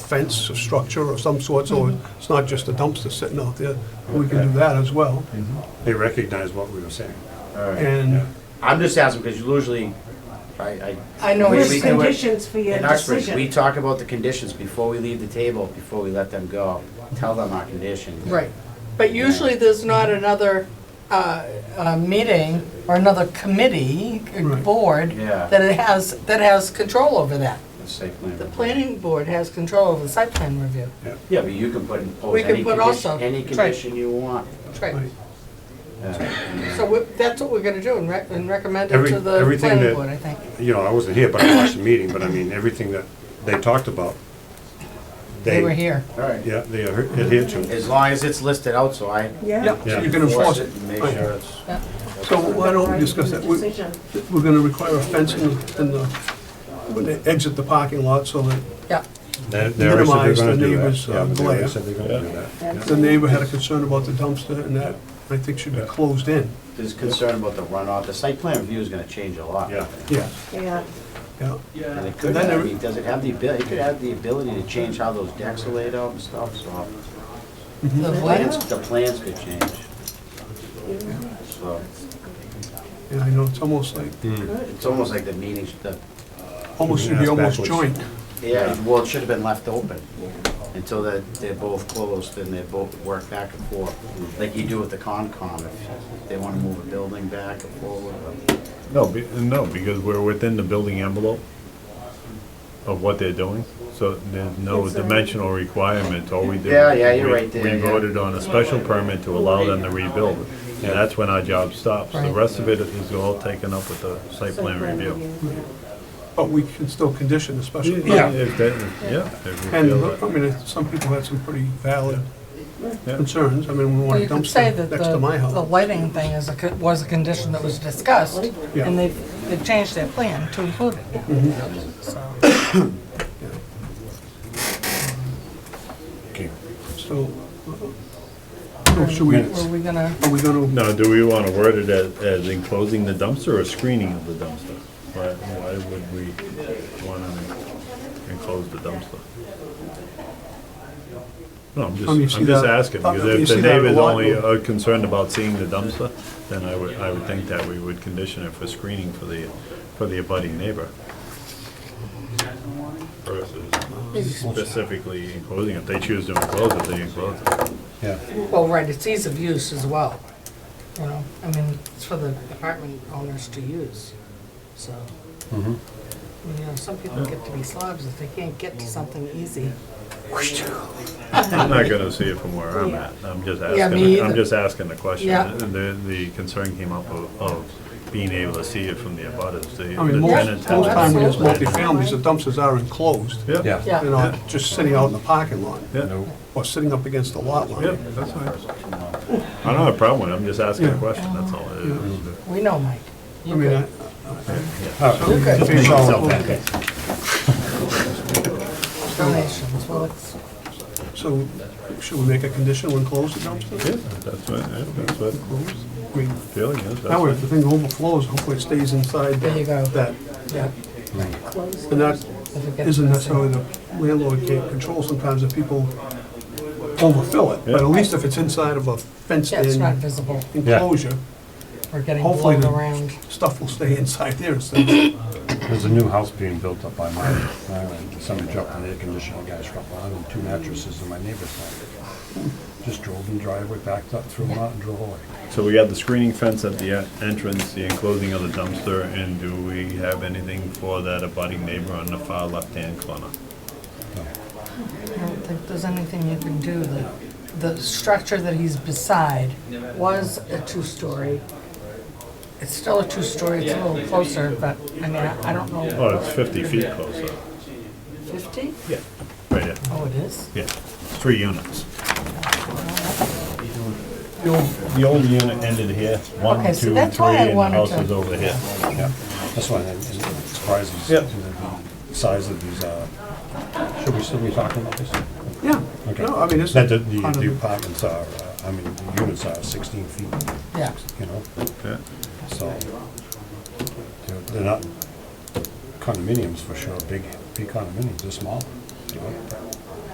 fence or structure of some sort, so it's not just a dumpster sitting out there. We can do that as well. Mm-hmm. They recognized what we were saying. All right. And I'm just asking because usually, I, I. I know we- it's- we- There's conditions for your In Uxbridge, we decision. talk about the conditions before we leave the table, before we let them go, tell them our conditions. Right, but usually there's not another uh, uh, meeting or another committee, uh, Right. board, Yeah. that it has, that has control over that. The site plan. The review. planning board has control over the site plan review. Yeah, but you can put, impose We can any put also- condition, any right. condition you want. That's right. Right. Yeah. So we- that's what we're going to do and rec- and recommend it Every- to the everything planning that- board, I think. You know, I wasn't here, but I watched the meeting, but I mean, everything that they talked about. They were here. All right, Yeah, they adhered to. it. as long as it's listed out, so I Yeah. Yep, Yeah. so you can enforce enforce it it. and make Right. sure it's. Yeah. So why don't we discuss that? We- Decision. We're gonna require a fence in the, in the, when they exit the parking lot so that Yeah, They- they already said they were Minimize the gonna do that. neighbors', uh, Yeah, they already glare. said they were gonna do that. the neighbor had a concern about the dumpster and that, I think should be closed in. There's concern about the runoff, the site plan review is gonna change a lot. Yeah. Yeah, Yeah. yeah. And it could, And then have- I there- mean, does it have the ability, it could have the ability to change how those decks are laid out and stuff, so. the Mm-hmm. The plan- plans, the plans could change. So, And I know, it's almost like, it's almost like the meetings, the, almost should be That's almost backwards. joint. yeah, well, it should have been left open until that they're both closed and they both work back and forth, like you do with the Concom, if they wanna move a building back and forward. or- No, be- no, because we're within the building envelope of what they're doing, so there's no Yes, sir. dimensional requirement, all we did. Yeah, yeah, you're we- right there, We yeah. voted on a special permit to allow them to rebuild, and that's when our job stops. The Right. rest of it is all taken up with the site plan review. But we can still condition the special permit. Yeah, if that, yeah. if we And, feel look, I that- mean, it's- some people had some pretty valid Yeah. concerns. I mean, we Well, want a you could say dumpster that the next to my the house. lighting thing is, a co- was a condition that was discussed, Yeah. Mm-hmm. and they've, they've changed their plan to include it. So- Okay. So, uh, so should we, Were are we gonna, we gonna, Now, do we want to word it as, as enclosing the dumpster or screening of the dumpster? Why, why would we want to enclose the dumpster? No, I'm Um, you just, see I'm just that- asking, uh, you because if see the that a neighbor's lot. only uh, concerned about seeing the dumpster, then I would, I would think that we would condition it for screening for the, for the abutting neighbor. Versus specifically enclosing, if they choose to enclose it, they enclose it. Yeah. well, right, it's ease of use as well, you know, I mean, it's for the apartment owners to use, so. You know, some people get to be slobs if they can't get to something easy. I'm not gonna see it from where I'm at, I'm just Yeah, me asking, I'm either. just asking the question. Yeah. And the, the concern came up of, of being able to see it from the abutters, the I mean, the most, tenants. most time when there's absolutely. multifamilies, the dumpsters are enclosed. Yeah, Yeah. They're not just sitting out in the parking lot yeah, or sitting up against the lot yeah, line. that's fine. I don't have a problem with it, I'm just asking a question, that's all. it is. We know, Mike. I mean, I- You're good. so, Donations, well, it's, so should we make a condition when close the dumpster? Yeah, that's what, yeah, that's what I mean, feeling is, that's That way, what, if the thing overflows, hopefully it stays inside there you go. that. Yeah. And that If it gets isn't messy. necessarily the landlord can't control sometimes if people overfill it. But at Yeah. least if it's inside of a Yeah, it's not fenced-in visible, enclosure, we're getting Hopefully blown the- around. stuff will stay inside there instead of, There's a new house being built up by my, and somebody dropped an air conditioner, a guy's dropped on, and two mattresses in my neighbor's house. Just drove in driveway, backed up, threw them out and drove away. so we got the screening fence at the en- entrance, the enclosing of the dumpster, and do we have anything for that abutting neighbor on the far left-hand corner? I don't think there's anything you can do. The, the structure that he's beside was a two-story. It's still a two-story, it's a little closer, but, I mean, I I don't know, Oh, it's fifty feet closer. fifty? Yeah. Right, yeah, Oh, it is? yeah, three units. The old, the old unit ended here, one, Okay, two, so three, and that's why I the wanted house to- is over here. Yeah, that's why I'm surprised Yeah. at the size of these, uh, should we still be talking about this? yeah. Okay. No, I mean, it's. That the, the part of the the- apartments are, uh, I mean, the units are sixteen feet, Yeah. you know, Yeah. so. they're- They're not condominiums for sure, big, big condominiums, they're small, you know.